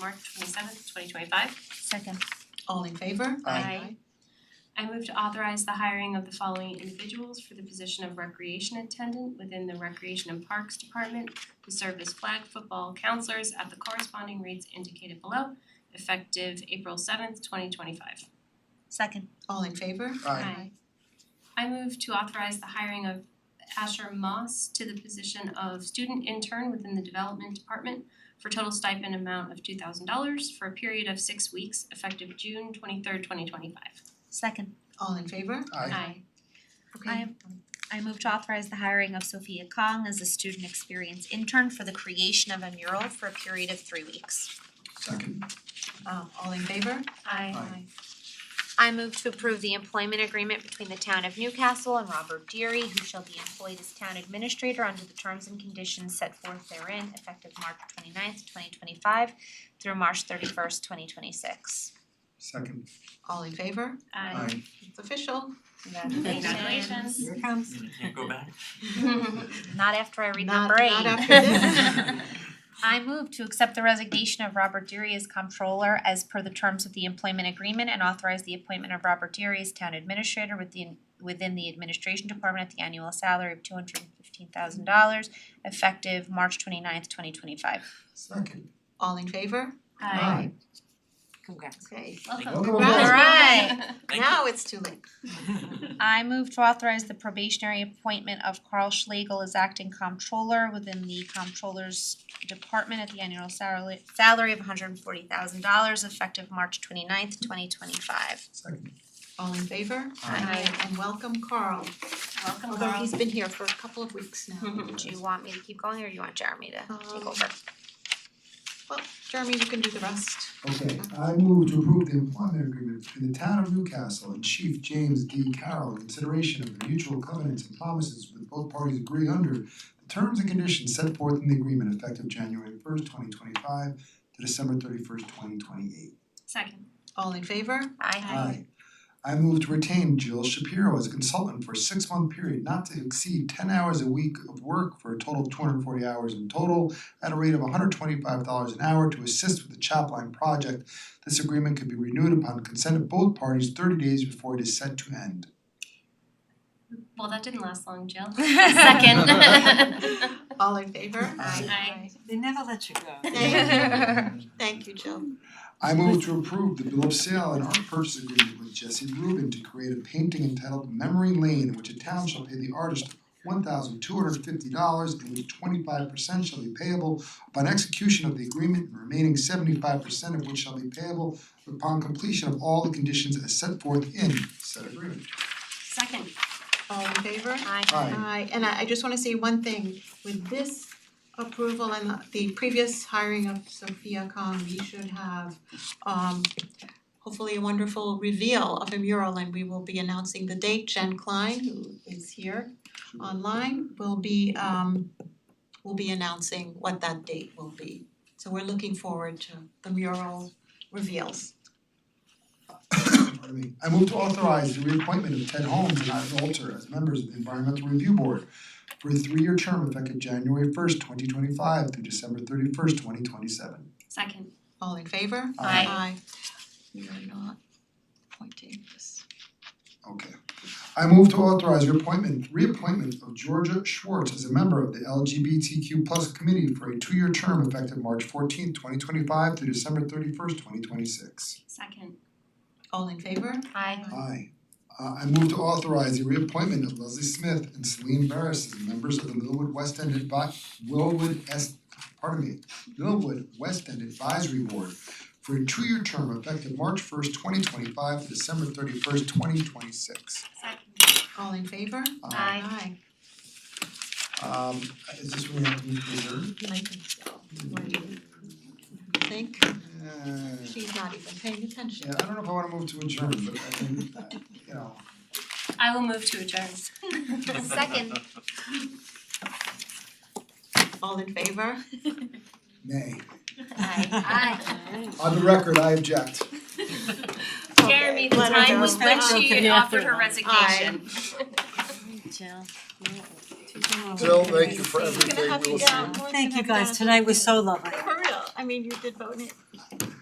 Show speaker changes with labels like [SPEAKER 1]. [SPEAKER 1] March twenty seventh, twenty twenty five.
[SPEAKER 2] Second.
[SPEAKER 3] All in favor?
[SPEAKER 2] Aye.
[SPEAKER 1] I move to authorize the hiring of the following individuals for the position of recreation attendant within the Recreation and Parks Department who serve as flag football counselors at the corresponding rates indicated below, effective April seventh, twenty twenty five.
[SPEAKER 2] Second.
[SPEAKER 3] All in favor?
[SPEAKER 4] Aye.
[SPEAKER 1] I move to authorize the hiring of Asher Moss to the position of student intern within the development department for total stipend amount of two thousand dollars for a period of six weeks effective June twenty third, twenty twenty five.
[SPEAKER 2] Second.
[SPEAKER 3] All in favor?
[SPEAKER 4] Aye.
[SPEAKER 3] Okay.
[SPEAKER 2] Aye. I move to authorize the hiring of Sophia Kong as a student experience intern for the creation of a mural for a period of three weeks.
[SPEAKER 4] Second.
[SPEAKER 3] Um all in favor?
[SPEAKER 1] Aye.
[SPEAKER 4] Aye.
[SPEAKER 2] I move to approve the employment agreement between the town of Newcastle and Robert Deary, who shall be employed as town administrator under the terms and conditions set forth therein effective March 29th, twenty five through March thirty first, twenty twenty six.
[SPEAKER 4] Second.
[SPEAKER 3] All in favor? It's official.
[SPEAKER 1] Congratulations.
[SPEAKER 3] Here it comes.
[SPEAKER 5] You can't go back.
[SPEAKER 2] Not after I read
[SPEAKER 3] Not-
[SPEAKER 2] number eight.
[SPEAKER 3] not after
[SPEAKER 4] this.
[SPEAKER 2] I move to accept the resignation of Robert Deary as comptroller as per the terms of the employment agreement and authorize the appointment of Robert Deary as town administrator within within the administration department at the annual salary of two hundred and fifteen thousand dollars effective March 29th, twenty twenty five.
[SPEAKER 4] Second.
[SPEAKER 3] All in favor?
[SPEAKER 1] Aye.
[SPEAKER 6] Congrats.
[SPEAKER 3] Okay.
[SPEAKER 1] Welcome.
[SPEAKER 3] Congrats.
[SPEAKER 2] Alright.
[SPEAKER 5] Thank
[SPEAKER 3] Now it's too late.
[SPEAKER 5] you.
[SPEAKER 2] I move to authorize the probationary appointment of Carl Schlegel as acting comptroller within the comptroller's department at the annual salary salary of hundred and forty thousand dollars effective March 29th, twenty twenty five.
[SPEAKER 4] Second.
[SPEAKER 3] All in favor?
[SPEAKER 1] Aye.
[SPEAKER 3] And welcome Carl,
[SPEAKER 1] Welcome
[SPEAKER 3] although
[SPEAKER 1] Laurel.
[SPEAKER 3] he's been here for a couple of weeks now.
[SPEAKER 2] Do you want me to keep going or do you want Jeremy to take
[SPEAKER 3] Um,
[SPEAKER 2] over?
[SPEAKER 3] Well, Jeremy, you can do the rest.
[SPEAKER 4] Okay, I move to approve the employment agreement between the town of Newcastle and Chief James D. Carroll in consideration of the mutual covenants and promises with both parties agree under the terms and conditions set forth in the agreement effective January first, twenty twenty-five to December thirty-first, twenty twenty-eight.
[SPEAKER 1] Second.
[SPEAKER 3] All in favor?
[SPEAKER 2] Aye.
[SPEAKER 4] Aye. I move to retain Jill Shapiro as a consultant for a six-month period not to exceed ten hours a week of work for a total of two hundred and forty hours in total at a rate of hundred twenty-five dollars an hour to assist with the Chapline project. This agreement could be renewed upon consent of both parties thirty days before it is set to end.
[SPEAKER 1] Well, that didn't last long, Jill.
[SPEAKER 4] Second.
[SPEAKER 3] All in favor?
[SPEAKER 4] Aye.
[SPEAKER 1] Aye.
[SPEAKER 6] They never let you go.
[SPEAKER 3] Thank you. Thank you, Jill.
[SPEAKER 4] I move to approve the bill of sale and art purchase agreement with Jesse Rubin to create a painting entitled Memory Lane, in which a town shall pay the artist one thousand two hundred fifty dollars and which twenty-five percent shall be payable upon execution of the agreement, and remaining seventy-five percent of which shall be payable upon completion of all the conditions as set forth in said agreement.
[SPEAKER 1] Second.
[SPEAKER 3] All in favor?
[SPEAKER 4] Aye.
[SPEAKER 3] Aye, and I I just wanna say one thing, with this approval and the- the previous hiring of Sophia Kong, we should have um hopefully a wonderful reveal of a mural and we will be announcing the date, Jen Klein, who is here online, will be um will be announcing what that date will be. So we're looking forward to the mural reveals.
[SPEAKER 4] Pardon me. I move to authorize the reappointment of Ted Holmes and Ivan Alter as members of the Environmental Review Board for a three-year term effective January first, twenty twenty-five through December thirty-first, twenty twenty-seven.
[SPEAKER 1] Second.
[SPEAKER 3] All in favor?
[SPEAKER 1] Aye.
[SPEAKER 3] Aye. We are not appointing this.
[SPEAKER 4] Okay. I move to authorize reappointment, reappointment of Georgia Schwartz as a member of the LGBTQ plus committee for a two-year term effective March fourteenth, twenty twenty-five through December thirty-first, twenty twenty-six.
[SPEAKER 1] Second.
[SPEAKER 3] All in favor?
[SPEAKER 2] Aye.
[SPEAKER 4] Aye. Uh, I move to authorize the reappointment of Leslie Smith and Celine Barris as members of the Millwood West End Advi- Willwood S, pardon me, Millwood West End Advisory Board for a two-year term effective March first, twenty twenty-five to December thirty-first, twenty twenty-six.
[SPEAKER 1] Second.
[SPEAKER 3] All in favor?
[SPEAKER 1] Aye.
[SPEAKER 4] Um, is this where we have to move to reserve?
[SPEAKER 3] I think so. I think
[SPEAKER 4] Uh,
[SPEAKER 3] she's not even paying attention.
[SPEAKER 4] yeah, I don't know if I wanna move to adjourn, but I mean, uh, you know.
[SPEAKER 1] I will move to adjourn.
[SPEAKER 2] Second.
[SPEAKER 3] All in favor?
[SPEAKER 4] Nay.
[SPEAKER 2] Aye.
[SPEAKER 4] On the record, I object.
[SPEAKER 1] Jeremy, the
[SPEAKER 3] Okay, let her
[SPEAKER 1] time was
[SPEAKER 3] go.
[SPEAKER 1] when she
[SPEAKER 6] Okay.
[SPEAKER 1] offered her resignation.
[SPEAKER 6] Jill.
[SPEAKER 7] Jill, thank you for everything.
[SPEAKER 3] Gonna have
[SPEAKER 7] We
[SPEAKER 3] you
[SPEAKER 7] will see.
[SPEAKER 3] down.
[SPEAKER 6] Thank you guys, tonight was so lovely.
[SPEAKER 3] For real, I mean, you did vote it.